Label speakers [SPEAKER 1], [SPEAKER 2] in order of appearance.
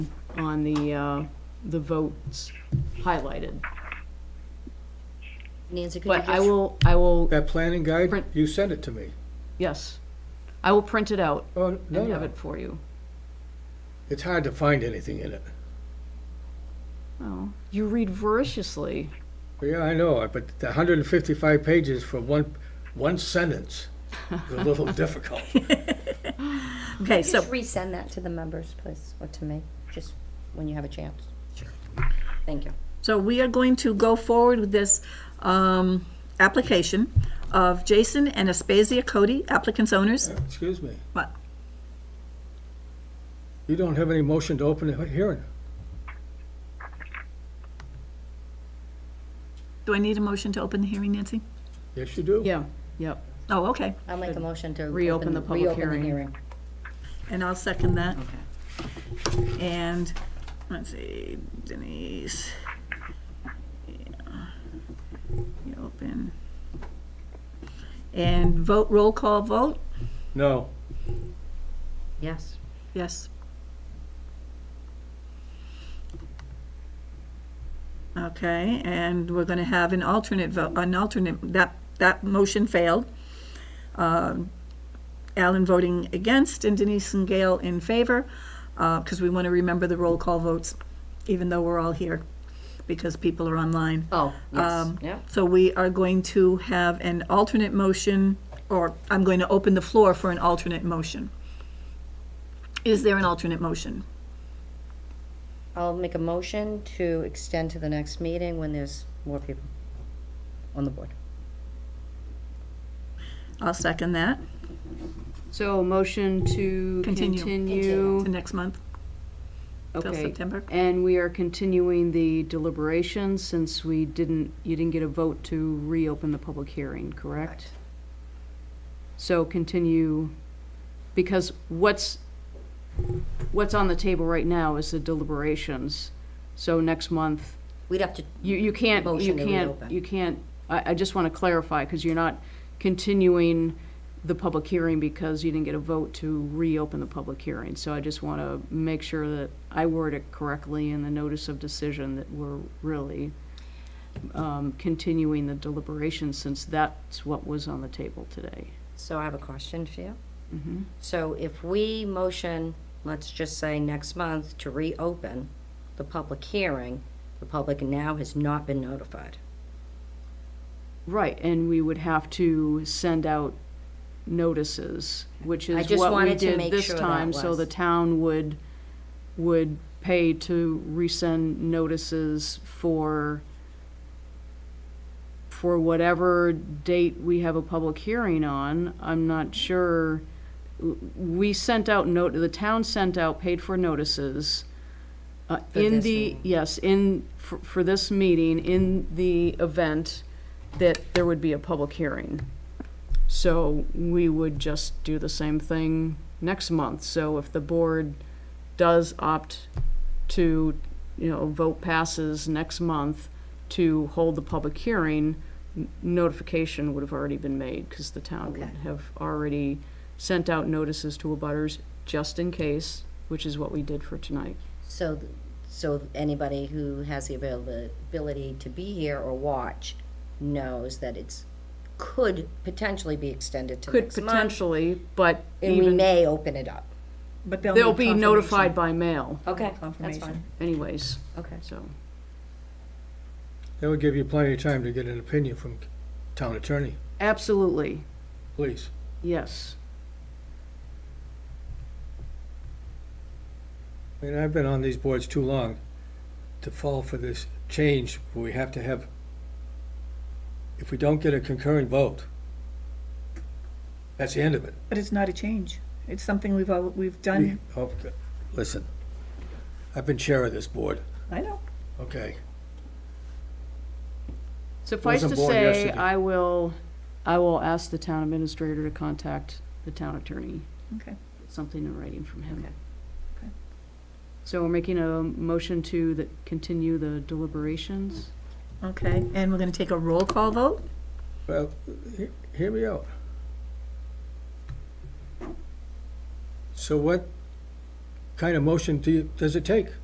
[SPEAKER 1] on the, uh, the votes highlighted.
[SPEAKER 2] Nancy, could you
[SPEAKER 1] But I
[SPEAKER 2] just,
[SPEAKER 1] will, I will,
[SPEAKER 3] That planning guide,
[SPEAKER 1] Print.
[SPEAKER 3] you sent it to me.
[SPEAKER 1] yes, I will print it out
[SPEAKER 3] Oh, no,
[SPEAKER 1] and have
[SPEAKER 3] no,
[SPEAKER 1] it for you.
[SPEAKER 3] it's hard to find anything in it.
[SPEAKER 1] Oh, you read voraciously.
[SPEAKER 3] Yeah, I know, it, but the hundred and fifty-five pages for one, one sentence is a little difficult.
[SPEAKER 4] Okay, so,
[SPEAKER 2] just resend that to the members, please, or to me, just when you have a chance? Sure. Thank you.
[SPEAKER 4] so we are going to go forward with this um, application of Jason and Aspasia Cody, applicants owners.
[SPEAKER 3] Excuse me,
[SPEAKER 4] What?
[SPEAKER 3] you don't have any motion to open the hearing.
[SPEAKER 4] Do I need a motion to open the hearing, Nancy?
[SPEAKER 3] Yes, you do.
[SPEAKER 1] Yeah, yep.
[SPEAKER 4] Oh, okay,
[SPEAKER 2] I'll make a motion to.
[SPEAKER 1] Reopen the public
[SPEAKER 2] reopen the
[SPEAKER 1] hearing.
[SPEAKER 4] and I'll second that. And, let's see, Denise. Yeah. You Open. And vote, roll call vote?
[SPEAKER 3] No,
[SPEAKER 2] Yes.
[SPEAKER 4] Yes. Okay, and we're gonna have an alternate vote, an alternate, that, that motion failed. Um, Alan voting against and Denise and Gail in favor, because we want to remember the roll call votes, even though we're all here, because people are online.
[SPEAKER 2] Oh, yes,
[SPEAKER 4] Um,
[SPEAKER 2] yeah.
[SPEAKER 4] So we are going to have an alternate motion, or I'm going to open the floor for an alternate motion. Is there an alternate motion?
[SPEAKER 2] I'll make a motion to extend to the next meeting when there's more people on the board.
[SPEAKER 4] I'll second that.
[SPEAKER 1] So motion to
[SPEAKER 4] Continue.
[SPEAKER 1] continue.
[SPEAKER 4] To next month, till
[SPEAKER 1] Okay.
[SPEAKER 4] September.
[SPEAKER 1] And we are continuing the deliberations since we didn't, you didn't get a vote to reopen the public hearing, correct? So continue, because what's, what's on the table right now is the deliberations. So next month,
[SPEAKER 2] We'd have to,
[SPEAKER 1] you, you can't, you
[SPEAKER 2] Motion to
[SPEAKER 1] can't,
[SPEAKER 2] reopen.
[SPEAKER 1] you can't, I, I just want to clarify, because you're not continuing the public hearing because you didn't get a vote to reopen the public hearing. So I just want to make sure that I word it correctly in the notice of decision that we're really um, continuing the deliberation, since that's what was on the table today.
[SPEAKER 2] so I have a question for you.
[SPEAKER 1] Mm-hmm.
[SPEAKER 2] So if we motion, let's just say next month, to reopen the public hearing, the public now has not been notified.
[SPEAKER 1] Right, and we would have to send out notices, which
[SPEAKER 2] I
[SPEAKER 1] is
[SPEAKER 2] just
[SPEAKER 1] what we
[SPEAKER 2] wanted to
[SPEAKER 1] did
[SPEAKER 2] make
[SPEAKER 1] this
[SPEAKER 2] sure that
[SPEAKER 1] time, so
[SPEAKER 2] was-
[SPEAKER 1] the town would, would pay to resend notices for, for whatever date we have a public hearing on, I'm not sure. We sent out note, the town sent out paid-for notices. Uh,
[SPEAKER 2] For
[SPEAKER 1] in
[SPEAKER 2] this
[SPEAKER 1] the,
[SPEAKER 2] meeting.
[SPEAKER 1] yes, in, for, for this meeting, in the event that there would be a public hearing. So we would just do the same thing next month. So if the board does opt to, you know, vote passes next month to hold the public hearing, n- notification would have already been made, because the town would
[SPEAKER 2] Okay.
[SPEAKER 1] have already sent out notices to abutters just in case, which is what we did for tonight.
[SPEAKER 2] So, th- so anybody who has the availability to be here or watch knows that it's, could potentially be extended to
[SPEAKER 1] Could
[SPEAKER 2] next month.
[SPEAKER 1] potentially, but
[SPEAKER 2] And we
[SPEAKER 1] even,
[SPEAKER 2] may open it up.
[SPEAKER 4] But
[SPEAKER 1] they'll be notified by mail
[SPEAKER 2] Okay, that's fine.
[SPEAKER 4] Confirmation.
[SPEAKER 1] anyways,
[SPEAKER 2] Okay.
[SPEAKER 1] so.
[SPEAKER 3] that would give you plenty of time to get an opinion from town attorney,
[SPEAKER 1] Absolutely,
[SPEAKER 3] please.
[SPEAKER 1] yes.
[SPEAKER 3] I mean, I've been on these boards too long to fall for this change where we have to have, if we don't get a concurrent vote, that's the end of it.
[SPEAKER 4] But it's not a change. It's something we've, al- we've done.
[SPEAKER 3] Oh, Listen, I've been chair of this board,
[SPEAKER 4] I know.
[SPEAKER 3] okay?
[SPEAKER 1] Suffice
[SPEAKER 3] Wasn't
[SPEAKER 1] to
[SPEAKER 3] born
[SPEAKER 1] say,
[SPEAKER 3] yesterday.
[SPEAKER 1] I will, I will ask the town administrator to contact the town attorney.
[SPEAKER 4] Okay.
[SPEAKER 1] Something in writing from him.
[SPEAKER 4] Okay.
[SPEAKER 1] So we're making a motion to the, continue the deliberations?
[SPEAKER 4] Okay, and we're gonna take a roll call vote?
[SPEAKER 3] Well, he- hear me out. So what kind of motion do you, does it take?